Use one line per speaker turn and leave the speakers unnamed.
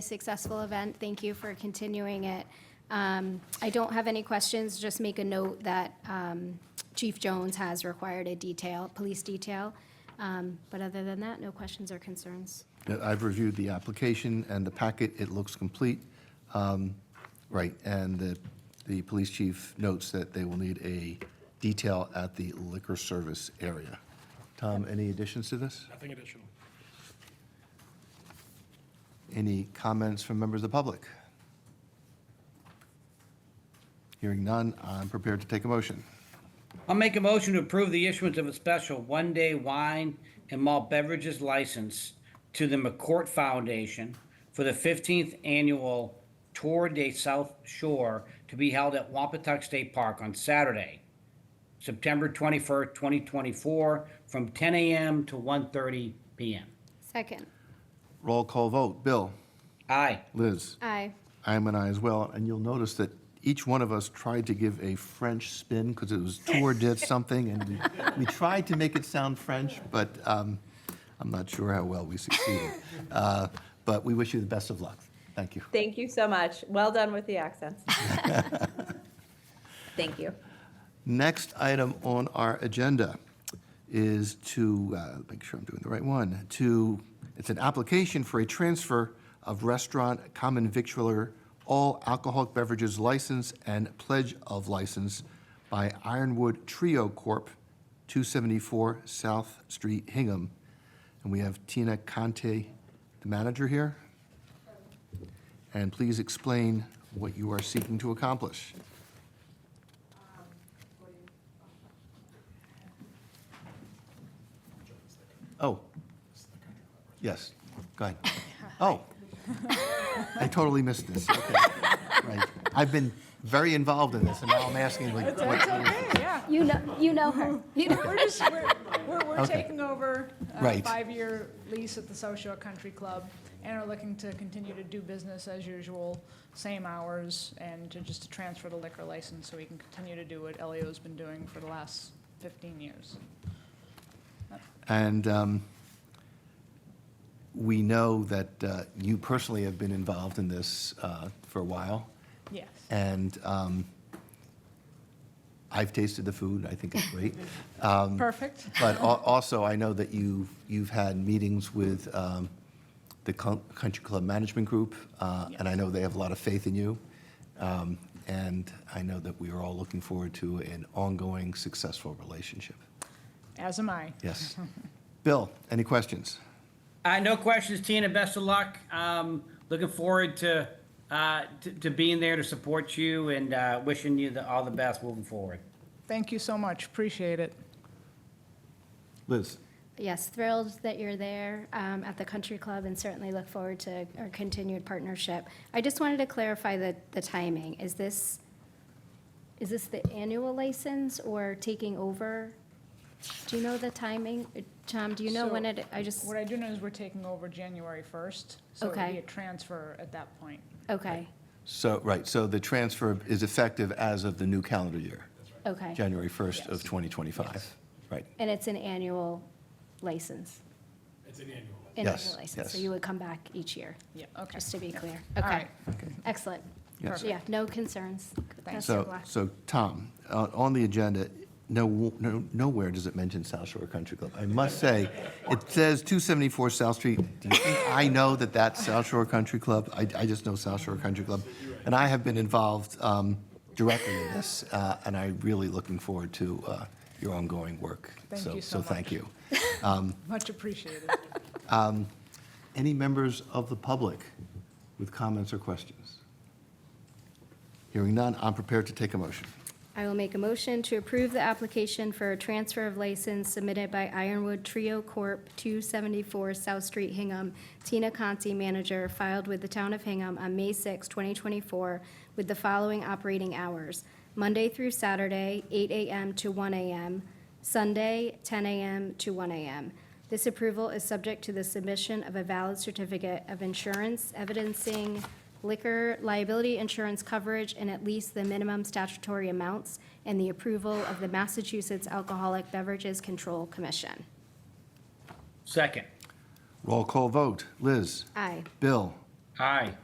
successful event. Thank you for continuing it. Um, I don't have any questions, just make a note that um, Chief Jones has required a detail, police detail. Um, But other than that, no questions or concerns.
Uh, I've reviewed the application and the packet, it looks complete. Um, Right, and the, the police chief notes that they will need a detail at the liquor service area. Tom, any additions to this?
Nothing additional.
Any comments from members of the public? Hearing none, I'm prepared to take a motion.
I'll make a motion to approve the issuance of a special one-day wine and malt beverages license to the McCourt Foundation for the 15th annual Tour de South Shore to be held at Wampatuck State Park on Saturday, September 21st, 2024, from 10 a.m. to 1:30 p.m.
Second.
Roll call vote, Bill?
Aye.
Liz?
Aye.
I am an I as well, and you'll notice that each one of us tried to give a French spin because it was tour did something, and we, we tried to make it sound French, but um, I'm not sure how well we succeeded. Uh, but we wish you the best of luck. Thank you.
Thank you so much. Well done with the accents. Thank you.
Next item on our agenda is to, uh, make sure I'm doing the right one, to, it's an application for a transfer of restaurant common victualler all alcoholic beverages license and pledge of license by Ironwood Trio Corp., 274 South Street, Hingham. And we have Tina Conte, the manager here. And please explain what you are seeking to accomplish. Oh. Yes, go ahead. Oh. I totally missed this. Okay. Right. I've been very involved in this, and now I'm asking like, what-
Yeah,
You know, you know her. You know-
we're just, we're, we're, we're
Okay.
taking over a
Right.
five-year lease at the South Shore Country Club and are looking to continue to do business as usual, same hours, and to just to transfer the liquor license so we can continue to do what Elio's been doing for the last fifteen years.
and um, we know that uh, you personally have been involved in this uh, for a while,
Yes.
and um, I've tasted the food, I think it's great. Um,
Perfect.
But al- also, I know that you, you've had meetings with um, the Con- Country Club Management Group, uh, and I know they have a lot of faith in you. Um, And I know that we are all looking forward to an ongoing, successful relationship.
As am I.
Yes. Bill, any questions?
Uh, no questions, Tina. Best of luck. Um, looking forward to, uh, to, to being there to support you and, uh, wishing you the, all the best moving forward.
Thank you so much. Appreciate it.
Liz?
Yes, thrilled that you're there um, at the country club and certainly look forward to our continued partnership. I just wanted to clarify the, the timing. Is this, is this the annual license or taking over? Do you know the timing? Tom, do you know when
So,
it, I just,
What I do know is we're taking over January first, so it'll
Okay.
be a transfer at that point.
okay,
So, right, so the transfer is effective as of the new calendar year,
okay.
January 1st of 2025. Right.
And it's an annual license?
It's an annual.
An
Yes,
annual license. So
yes.
you would come back each year,
Yeah, okay.
just to be clear?
All
Okay,
right.
excellent.
Yes.
Yeah, no concerns. Best of
So,
luck.
so Tom, uh, on the agenda, no, no, nowhere does it mention South Shore Country Club. I must say, it says 274 South Street. Do you think I know that that's South Shore Country Club? I, I just know South Shore Country Club. And I have been involved um, directly in this, uh, and I'm really looking forward to uh, your ongoing work.
Thank you so
So thank
much.
you.
Much appreciated.
Any members of the public with comments or questions? Hearing none, I'm prepared to take a motion.
I will make a motion to approve the application for a transfer of license submitted by Ironwood Trio Corp., 274 South Street, Hingham. Tina Conti, manager, filed with the town of Hingham on May 6, 2024, with the following operating hours: Monday through Saturday, 8 a.m. to 1 a.m., Sunday, 10 a.m. to 1 a.m. This approval is subject to the submission of a valid certificate of insurance evidencing liquor liability insurance coverage in at least the minimum statutory amounts and the approval of the Massachusetts Alcoholic Beverages Control Commission.
Second.
Roll call vote. Liz?
Aye.
Bill?
Aye.